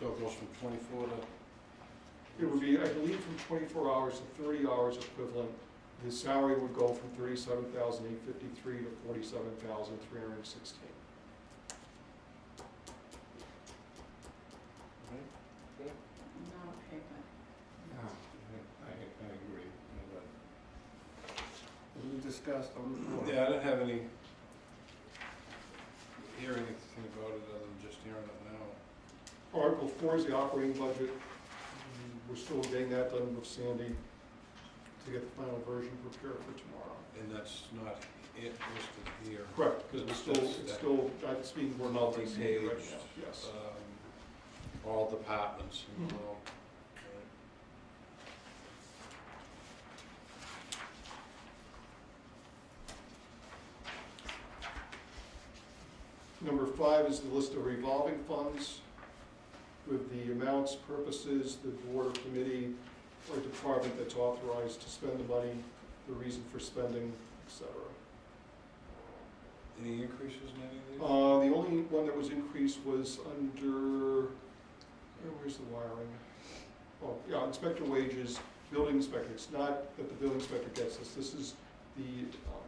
So it goes from twenty-four to, It would be, I believe, from twenty-four hours to thirty hours equivalent. His salary would go from thirty-seven thousand eight fifty-three to forty-seven thousand three hundred and sixteen. right? Not okay, Yeah, I, I agree. As we discussed on the floor. Yeah, I didn't have any, hear anything about it other than just hearing it now. Article four is the operating budget. Mm, We're still getting that done with Sandy to get the final version prepared for tomorrow. And that's not it listed here. Correct, because we're still, That's- it's that- still, that's being worked out by Sandy right Multi-paged. now, yes. um, All departments and Mhm. all. Number five is the list of revolving funds with the amounts, purposes, the board or committee or department that's authorized to spend the money, the reason for spending, et cetera. Any increases in any of these? Uh, the only one that was increased was under, where- where's the wiring? Oh, yeah, inspector wages, building inspector, it's not that the building inspector gets this, this is the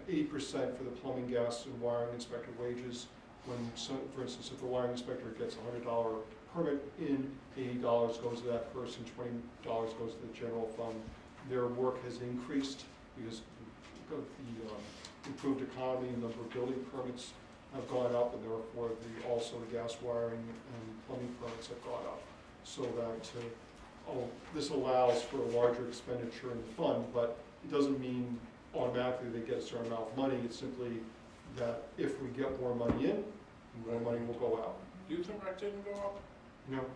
eighty percent for the plumbing, gas, and wiring inspector wages. When, so, for instance, if the wiring inspector gets a hundred dollar permit in, eighty dollars goes to that person, twenty dollars goes to the general fund. Their work has increased because of the, um, improved economy, and number of building permits have gone up, and therefore the, also the gas wiring and plumbing permits have gone up. So that, uh, oh, this allows for a larger expenditure in the fund, but it doesn't mean automatically they get a certain amount of money, it's simply that if we get more money in, more money will go out. Do you think that didn't go up? You know, Alright.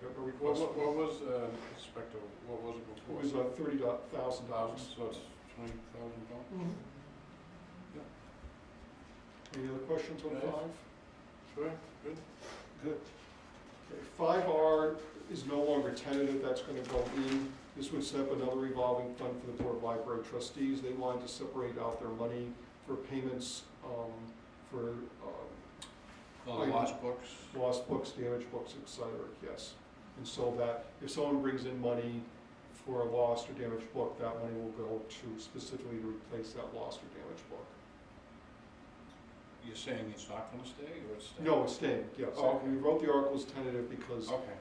I got no What, request. what what was, uh, inspector, what was it It before? was uh, thirty thousand Thousand, dollars. so it's twenty thousand dollars? Any other questions on Yes. five? Sure, good. Good. Okay, Five R is no longer tentative, that's gonna go in. This would set up another revolving fund for the Board of Library Trustees. They wanted to separate out their money for payments, um, for, um, All the Item. lost books? lost books, damaged books, et cetera, yes. And so that, if someone brings in money for a lost or damaged book, that money will go to specifically to replace that lost or damaged book. You're saying it's not gonna stay, or it's staying? No, it's staying, yes. Oh, okay. We wrote the articles tentative because Okay,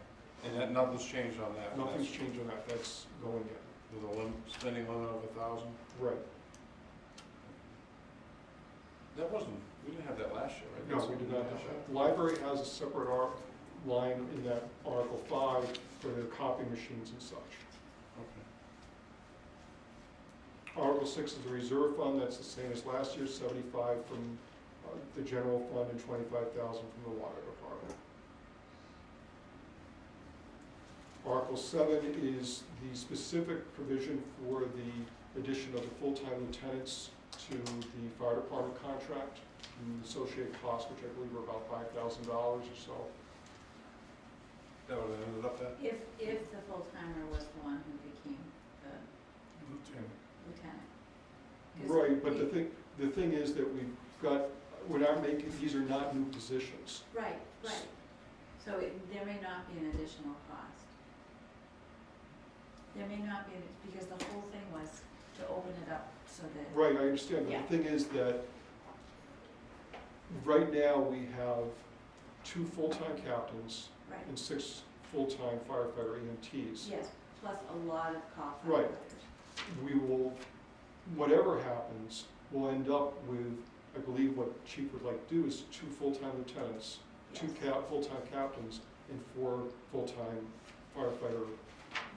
and that, nothing's changed on that? nothing's That's changed on that, that's going in. With a lim, spending limit of a thousand? Right. That wasn't, we didn't have that last year, right? No, That's- we did not have that. The Library has a separate ar- line in that Article five for their copy machines and such. Okay. Article six is a reserve fund, that's the same as last year, seventy-five from uh, the general fund and twenty-five thousand from the water department. Article seven is the specific provision for the addition of the full-time lieutenants to the fire department contract and the associated costs, which I believe are about five thousand dollars or so. That would have ended up that? but if, if the full timer was the one who became the lieutenant. 'Cause Right, but the we- thing, the thing is that we've got, we're not making, these are not new positions. Right, right. So it, there may not be an additional cost. There may not be, an- because the whole thing was to open it up so that, Right, I understand, but Yeah. the thing is that right now, we have two full-time captains right, and six full-time firefighter E EMTs. yes, plus a lot of call Right. firefighters. We will, whatever happens, we'll end up with, I believe what Chief would like to do is two full-time lieutenants, two Yes. cap, full-time captains, and four full-time firefighter.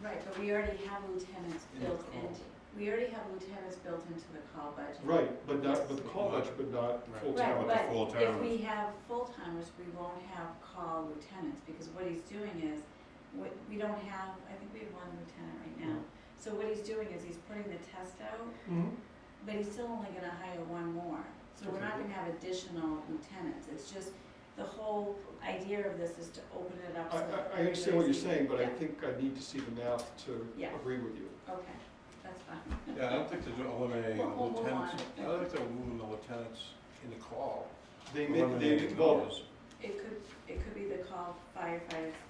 Right, but we already have lieutenants In the built call. into, we already have lieutenants built into the call budget. Right, but not, but the Yes. college, but not Right. full-time. Right, with the but full-timers. if we have full-timers, we won't have call lieutenants, because what he's doing is, what, we don't have, I think we have one lieutenant right Hmm. now. So what he's doing is he's putting the test out, Mhm. but he's still only gonna hire one more. So we're not gonna have additional lieutenants, it's just, the whole idea of this is to open it up. I, so I- I that understand what you're everybody's- saying, but I Yeah. think I need to see the math to Yeah. agree with you. Okay, that's fine, Yeah, I don't think they're eliminating We'll- the we'll move lieutenants. I on. don't think they're moving the lieutenants in the call. They make, they, Eliminating well, those. it could, it could be the call firefighters